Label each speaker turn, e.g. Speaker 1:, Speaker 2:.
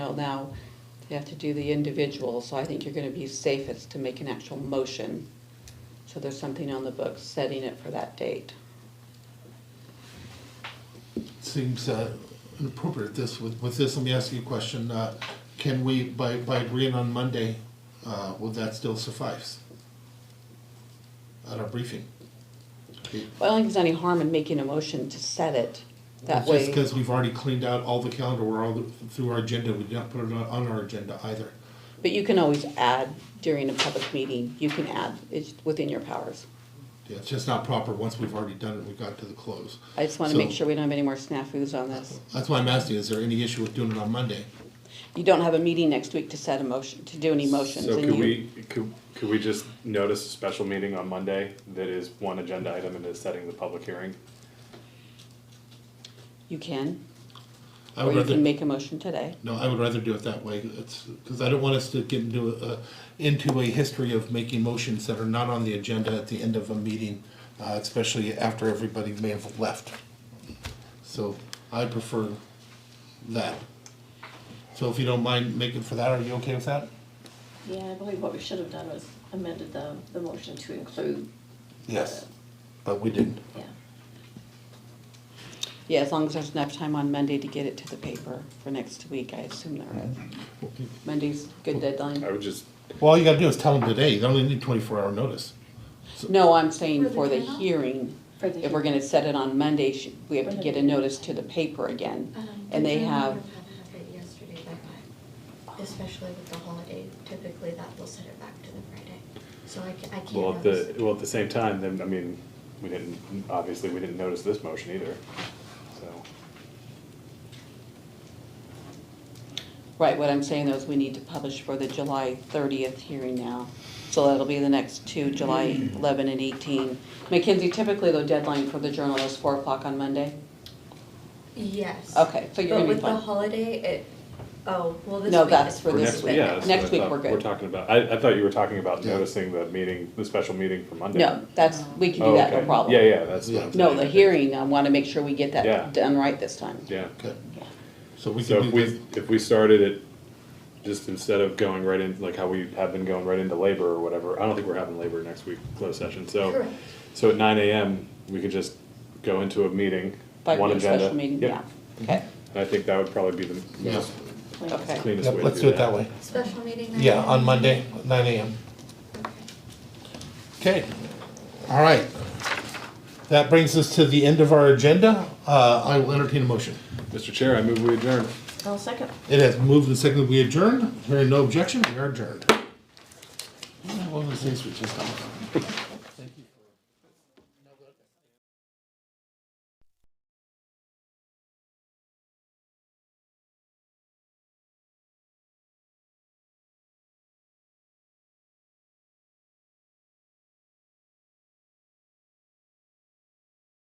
Speaker 1: detail now. They have to do the individual, so I think you're gonna be safest to make an actual motion. So there's something on the books setting it for that date.
Speaker 2: Seems uh, inappropriate this, with with this, let me ask you a question. Uh, Can we, by, by agreeing on Monday, uh, will that still suffice? At our briefing? It-
Speaker 1: Well, I don't think there's any harm in making a motion to set it that
Speaker 2: It's
Speaker 1: way.
Speaker 2: Just because we've already cleaned out all the calendar, we're all through our agenda, we did not put it on- on our agenda either.
Speaker 1: But you can always add during a public meeting, you can add, it's within your powers.
Speaker 2: Yeah, It's just not proper, once we've already done it, we got to the close.
Speaker 1: I just wanna make
Speaker 2: So-
Speaker 1: sure we don't have any more snafus on this.
Speaker 2: That's why I'm asking, is there any issue with doing it on Monday?
Speaker 1: You don't have a meeting next week to set a motion, to do any motions.
Speaker 3: So
Speaker 1: and
Speaker 3: could
Speaker 1: you-
Speaker 3: we, could, could we just notice a special meeting on Monday that is one agenda item and is setting the public hearing?
Speaker 1: You can,
Speaker 2: I
Speaker 1: or
Speaker 2: would
Speaker 1: you
Speaker 2: rather-
Speaker 1: can make a motion today.
Speaker 2: No, I would rather do it that way, it's, because I don't want us to get into a, into a history of making motions that are not on the agenda at the end of a meeting, uh, especially after everybody may have left. So I prefer that. So if you don't mind making for that, are you okay with that?
Speaker 4: Yeah, I believe what we should have done was amended the, the motion to include,
Speaker 2: Yes. But we didn't.
Speaker 4: yeah.
Speaker 1: Yeah, as long as there's enough time on Monday to get it to the paper for next week, I assume there is. Monday's good
Speaker 3: I
Speaker 1: deadline.
Speaker 3: would just,
Speaker 2: Well, all you gotta do is tell them today, you only need twenty-four hour notice.
Speaker 1: No, I'm saying
Speaker 4: For the
Speaker 1: for the
Speaker 4: panel?
Speaker 1: hearing,
Speaker 4: for the-
Speaker 1: if we're gonna set it on Monday, sh- we have to get a notice to the paper again.
Speaker 5: Um,
Speaker 1: And they
Speaker 5: the
Speaker 1: have,
Speaker 5: gentleman had it Yesterday that night, especially with the holiday, typically that will set it back to the Friday, so I ca- I can't
Speaker 3: well, at
Speaker 5: notice
Speaker 3: the,
Speaker 5: it.
Speaker 3: well, at the same time, then, I mean, we didn't, obviously, we didn't notice this motion either, so.
Speaker 1: right, what I'm saying though is we need to publish for the July thirtieth hearing now. So that'll be the next two, July eleven and eighteen. Mackenzie, typically the deadline for the journal is four o'clock on Monday?
Speaker 5: Yes.
Speaker 1: Okay, so you're
Speaker 5: But
Speaker 1: gonna be
Speaker 5: with the
Speaker 1: fine.
Speaker 5: holiday, it, oh, well, this week.
Speaker 1: No, that's
Speaker 5: it-
Speaker 1: for this
Speaker 3: next
Speaker 1: week.
Speaker 3: yeah, that's what I
Speaker 1: Next week,
Speaker 3: thought
Speaker 1: we're
Speaker 3: We're
Speaker 1: good.
Speaker 3: talking about, I, I thought you were talking about
Speaker 2: Yeah.
Speaker 3: noticing the meeting, the special meeting for Monday.
Speaker 1: No, that's, we can do
Speaker 3: Oh,
Speaker 1: that, no
Speaker 3: okay.
Speaker 1: problem.
Speaker 3: Yeah, yeah, that's what I'm
Speaker 1: No,
Speaker 3: saying.
Speaker 1: the hearing, I want to make sure we get
Speaker 3: Yeah.
Speaker 1: that done right this time.
Speaker 3: Yeah.
Speaker 2: Okay. So we
Speaker 3: So
Speaker 2: can
Speaker 3: if
Speaker 2: do
Speaker 3: we,
Speaker 2: that,
Speaker 3: if we started it, just instead of going right in, like how we have been going right into labor or whatever, I don't think we're having labor next week, closed session, so.
Speaker 5: Correct.
Speaker 3: So at nine AM, we could just go into a meeting,
Speaker 1: By
Speaker 3: one
Speaker 1: the
Speaker 3: agenda.
Speaker 1: special meeting,
Speaker 3: Yep.
Speaker 1: yeah. Okay,
Speaker 3: And I think that would probably be the
Speaker 2: Yeah.
Speaker 3: most
Speaker 4: like-
Speaker 1: okay.
Speaker 2: Yep,
Speaker 3: cleanest way to do that.
Speaker 2: let's do it that way.
Speaker 5: Special meeting. night?
Speaker 2: Yeah, on Monday, nine AM.
Speaker 5: Okay.
Speaker 2: Okay, all right. That brings us to the end of our agenda. Uh, I will entertain a motion.
Speaker 3: Mr. Chair, I move we adjourn.
Speaker 4: I'll second.
Speaker 2: It has moved and seconded we adjourn. Hearing no objection, we are adjourned. One of those things we just don't-